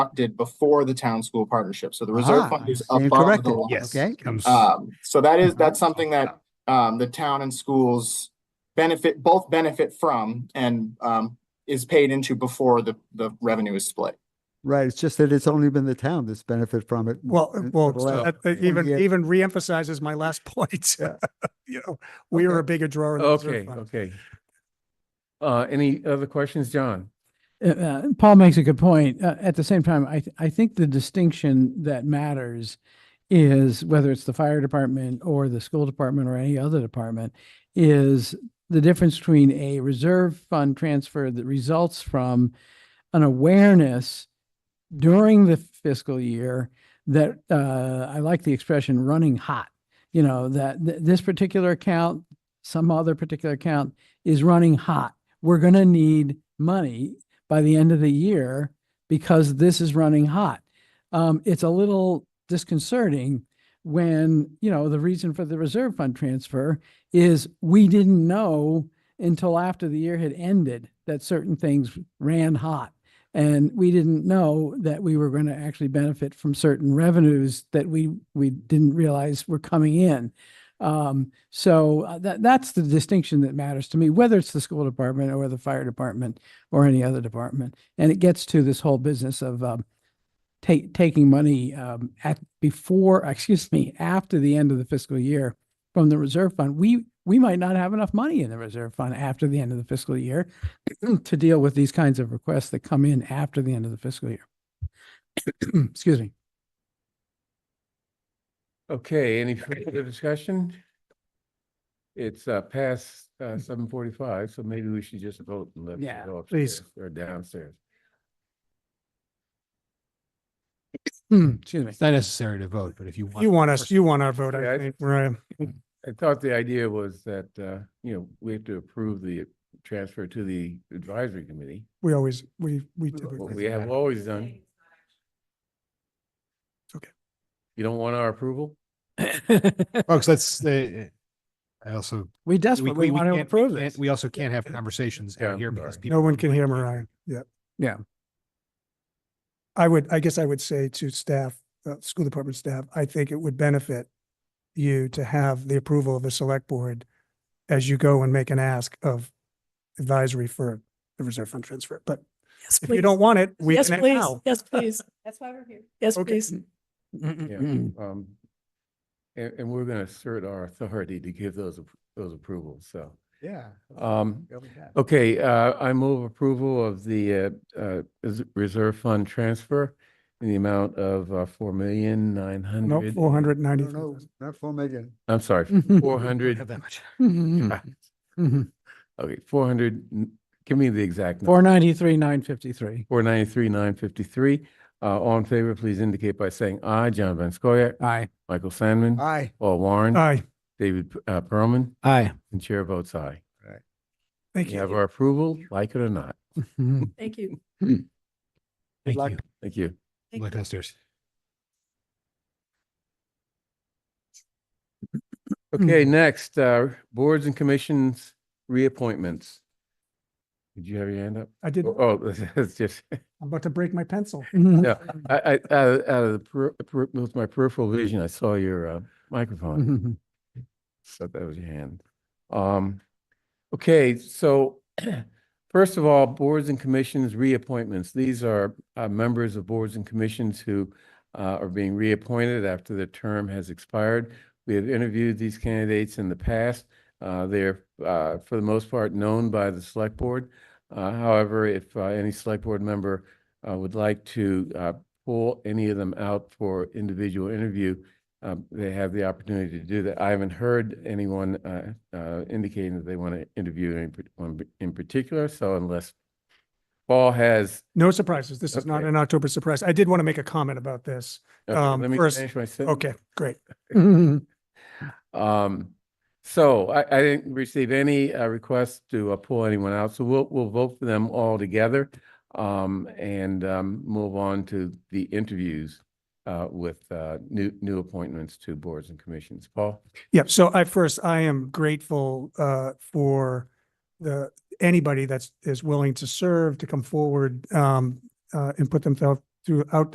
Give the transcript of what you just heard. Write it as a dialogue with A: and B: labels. A: did before the town school partnership. So the reserve
B: Ah,
A: fund is
B: I stand
A: above the
B: corrected.
A: line.
C: Yes.
B: Okay.
C: comes-
A: Um, so that is, that's something that, um, the town and schools benefit, both benefit from and, um, is paid into before the, the revenue is split.
B: Right, it's just that it's only been the town that's benefited from it.
C: Well,
B: in-
C: well,
B: for the last-
C: that- that
B: 20
C: even,
B: years.
C: even reemphasizes my last point.
B: Yeah.
C: You know, we are a bigger drawer. in the reserve
D: Okay,
C: fund.
D: okay. Uh, any other questions, John?
E: Uh, uh, Paul makes a good point. Uh, At the same time, I, th- I think the distinction that matters is whether it's the fire department or the school department or any other department is the difference between a reserve fund transfer that results from an awareness during the fiscal year that, uh, I like the expression running hot. You know, that th- this particular account, some other particular account is running hot. We're going to need money by the end of the year because this is running hot. Um, it's a little disconcerting when, you know, the reason for the reserve fund transfer is we didn't know until after the year had ended that certain things ran hot. And we didn't know that we were going to actually benefit from certain revenues that we, we didn't realize were coming in. Um, so uh, that, that's the distinction that matters to me, whether it's the school department or the fire department or any other department. And it gets to this whole business of um, ta- taking money um, at before, excuse me, after the end of the fiscal year from the reserve fund. We we might not have enough money in the reserve fund after the end of the fiscal year to deal with these kinds of requests that come in after the end of the fiscal year. excuse me.
D: Okay, any further discussion? It's uh past uh seven forty-five, so maybe we should just vote and let. it
E: Yeah,
D: go
C: please.
D: upstairs Or downstairs.
E: excuse me.
F: It's not necessary to vote, but if you want.
C: You want us, you want our vote,
D: Yeah,
C: I
D: I-
C: think, uh, right?
D: I thought the idea was that, uh, you know, we have to approve the transfer to the advisory committee,
C: We always, we, we
D: what
C: typically.
D: we have always done.
C: It's okay.
D: You don't want our approval?
F: Folks, that's, uh, I also.
E: we desperately want to
F: can't-
E: approve
F: can't-
E: this.
F: We also can't have conversations
D: Yeah,
F: out
D: I'm
F: here because
D: sorry.
F: people.
C: No one can hear Mariah. Yeah.
E: Yeah.
C: I would, I guess I would say to staff, uh, school department staff, I think it would benefit you to have the approval of the select board as you go and make an ask of advisory for the reserve fund transfer. But
G: Yes,
C: if you
G: please.
C: don't want it, we
G: Yes,
C: can
G: please.
C: now.
G: Yes, please.
H: That's why we're here.
G: Yes,
C: Okay.
G: please.
D: Yeah,
E: Mm-mm-mm.
D: um, and, and we're gonna assert our authority to give those, ap- those approvals, so.
F: Yeah.
D: Um, okay, uh, I move approval of the, uh, uh, is- reserve fund transfer in the amount of, uh, four million nine
C: No,
D: hundred.
C: four hundred ninety.
B: No, no, not four million.
D: I'm sorry, four
F: Have
D: hundred,
F: that much.
E: Mhm.
D: okay, four hundred, give me the exact. number.
E: 493, 953.
D: Four ninety-three, nine fifty-three. Uh, all in favor, please indicate by saying aye. John Van Scoyac,
E: Aye.
D: Michael Sandman,
B: Aye.
D: Paul Warren,
C: Aye,
D: David, uh, Perlman,
E: Aye.
D: and chair votes aye.
C: thank
D: You
C: you.
D: have our approval, like it or not.
G: Thank you.
F: Thank
B: luck.
F: you.
D: Thank you.
F: Good luck downstairs.
D: Okay, next, uh, boards and commissions reappointments. Did you have your hand up?
C: I did, I'm
D: Oh, it's just,
C: about to break my pencil.
D: no, I, I, out of- out of the, per- per- with my peripheral vision, I saw your, uh,
E: Mm-hmm.
D: microphone. So that was your hand. Um, okay, so first of all, boards and commissions reappointments. These are uh, members of boards and commissions who uh, are being reappointed after their term has expired. We have interviewed these candidates in the past. Uh, they're, uh, for the most part, known by the select board. Uh, however, if uh, any select board member uh, would like to uh, pull any of them out for individual interview, um, they have the opportunity to do that. I haven't heard anyone uh, uh, indicating that they want to interview anyone in particular. So unless Paul has,
C: No surprises. This is not
D: Okay.
C: an October surprise. I did want to make a comment about this.
D: okay,
C: Um,
D: uh, let me
C: first-
D: finish my sentence.
C: Okay, great.
D: Um, so I, I didn't receive any uh, requests to uh, pull anyone out, so we'll, we'll vote for them all together. Um, and, um, move on to the interviews, uh, with, uh, new, new appointments to boards and commissions. Paul?
C: Yeah, so I first, I am grateful uh for the, anybody that's is willing to serve, to come forward um uh and put themselves throughout